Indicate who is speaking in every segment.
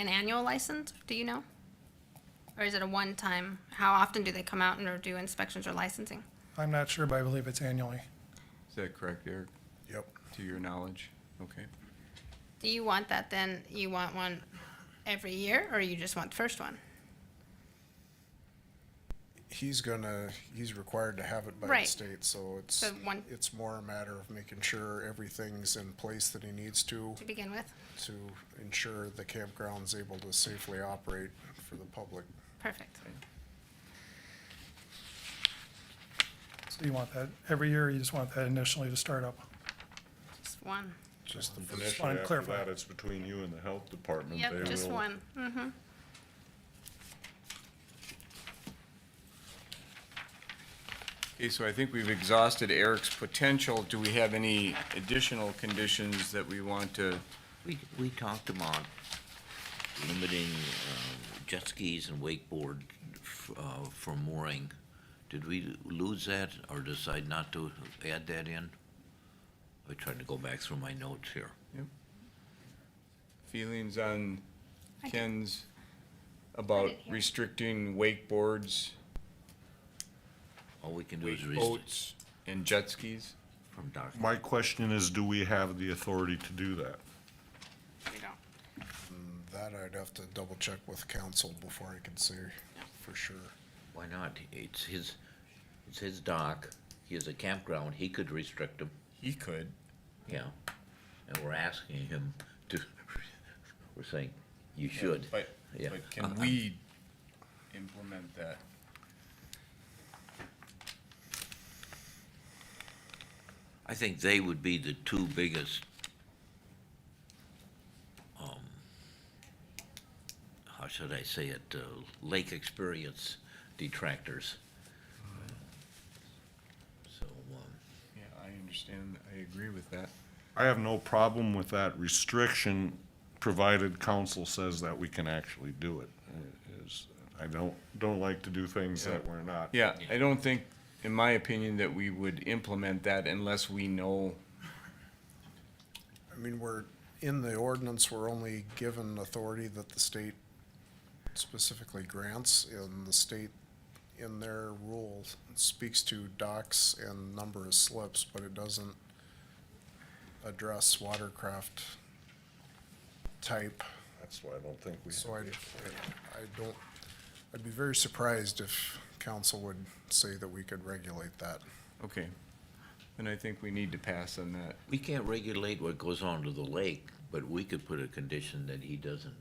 Speaker 1: an annual license? Do you know? Or is it a one-time? How often do they come out and or do inspections or licensing?
Speaker 2: I'm not sure, but I believe it's annually.
Speaker 3: Is that correct, Eric,
Speaker 4: Yep.
Speaker 3: to your knowledge? Okay.
Speaker 1: Do you want that then? You want one every year or you just want the first one?
Speaker 4: He's gonna, he's required to have it by the
Speaker 1: Right.
Speaker 4: state, so it's,
Speaker 1: So one-
Speaker 4: it's more a matter of making sure everything's in place that he needs to,
Speaker 1: To begin with?
Speaker 4: to ensure the campground's able to safely operate for the public.
Speaker 1: Perfect.
Speaker 2: So you want that every year, or you just want that initially to start up?
Speaker 1: Just one.
Speaker 4: Just the,
Speaker 5: Initially,
Speaker 2: wanted to
Speaker 5: after
Speaker 2: clarify.
Speaker 5: that, it's between you and the health department.
Speaker 1: Yep,
Speaker 5: They
Speaker 1: just
Speaker 5: will-
Speaker 1: one. Mm-hmm.
Speaker 3: Okay, so I think we've exhausted Eric's potential. Do we have any additional conditions that we want to?
Speaker 6: We, we talked about limiting um, jet skis and wakeboard f- uh, for mooring. Did we lose that or decide not to add that in? I tried to go back through my notes here.
Speaker 3: feelings on
Speaker 1: I did-
Speaker 3: Ken's about
Speaker 1: didn't hear.
Speaker 3: restricting wakeboards,
Speaker 6: All we can do is resist
Speaker 3: boats, and jet skis?
Speaker 6: from dock.
Speaker 5: My question is, do we have the authority to do that?
Speaker 1: We don't.
Speaker 4: that I'd have to double check with council before I can say for sure.
Speaker 6: Why not? It's his, it's his dock. He has a campground. He could restrict him.
Speaker 3: He could.
Speaker 6: Yeah. And we're asking him to, we're saying, you should.
Speaker 3: But,
Speaker 6: Yeah. Uh,
Speaker 3: but can we implement that?
Speaker 6: I think they would be the two biggest, um, how should I say it, uh, lake experience detractors. So, um,
Speaker 3: Yeah, I understand. I agree with that.
Speaker 5: I have no problem with that restriction, provided council says that we can actually do it. It is- I don't, don't like to do things that we're not.
Speaker 3: Yeah, I don't think, in my opinion, that we would implement that unless we know
Speaker 4: I mean, we're, in the ordinance, we're only given authority that the state specifically grants, and the state in their rule speaks to docks and number of slips, but it doesn't address watercraft type.
Speaker 5: That's why I don't think we.
Speaker 4: So I, I don't, I'd be very surprised if council would say that we could regulate that.
Speaker 3: Okay. And I think we need to pass on that.
Speaker 6: we can't regulate what goes on to the lake, but we could put a condition that he doesn't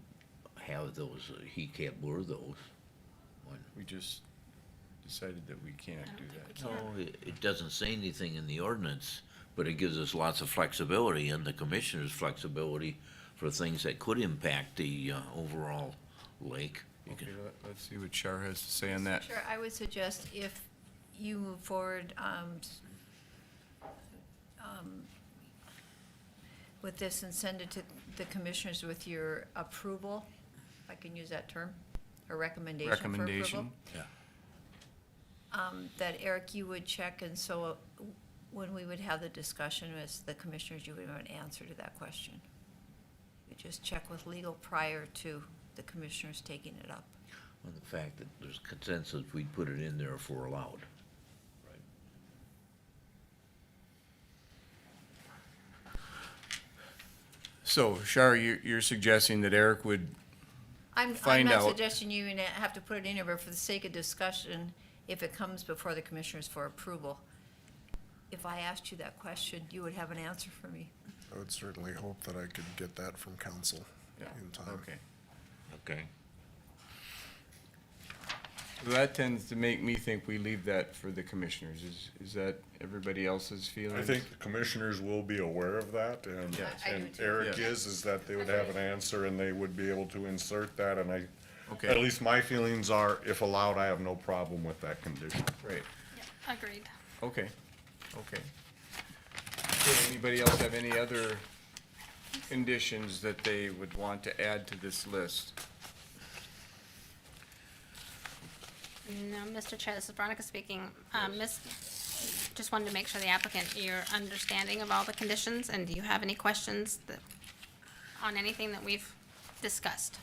Speaker 6: have those, he can't moor those. One-
Speaker 3: We just decided that we can't do that.
Speaker 6: No, it, it doesn't say anything in the ordinance, but it gives us lots of flexibility and the commissioner's flexibility for things that could impact the, uh, overall lake. You
Speaker 3: Okay,
Speaker 6: can-
Speaker 3: let- let's see what Char has to say on that.
Speaker 7: Sure, I would suggest if you move forward um, s- um, with this and send it to the commissioners with your approval, if I can use that term, or recommendation for approval.
Speaker 3: Recommendation.
Speaker 7: um, That Eric, you would check, and so uh, when we would have the discussion as the commissioners, you would have an answer to that question. You just check with legal prior to the commissioners taking it up.
Speaker 6: And the fact that there's consensus, we'd put it in there if we're allowed.
Speaker 3: So Char, you're, you're suggesting that Eric would,
Speaker 7: I'm, I'm
Speaker 3: find
Speaker 7: not
Speaker 3: out.
Speaker 7: suggesting you na- have to put it in there, but for the sake of discussion, if it comes before the commissioners for approval, if I asked you that question, you would have an answer for me.
Speaker 4: I would certainly hope that I could get that from council
Speaker 3: Yeah.
Speaker 4: in time.
Speaker 3: okay.
Speaker 6: Okay.
Speaker 3: Well, That tends to make me think we leave that for the commissioners. Is, is that everybody else's
Speaker 5: I
Speaker 3: feelings?
Speaker 5: think the commissioners will be aware of that, and,
Speaker 3: Yes.
Speaker 7: I- I do
Speaker 5: and
Speaker 7: too.
Speaker 5: Eric
Speaker 3: Yes.
Speaker 5: is, is that they would have an answer and they would be able to insert that, and I, at
Speaker 3: Okay,
Speaker 5: least my feelings are, if allowed, I have no problem with that condition.
Speaker 3: right,
Speaker 1: Agreed.
Speaker 3: okay, okay. Okay, Anybody else have any other conditions that they would want to add to this list?
Speaker 1: No, Mr. Chair, this is Veronica speaking. Um, Miss, just wanted to make sure the applicant, your understanding of all the conditions, and do you have any questions that, on anything that we've discussed?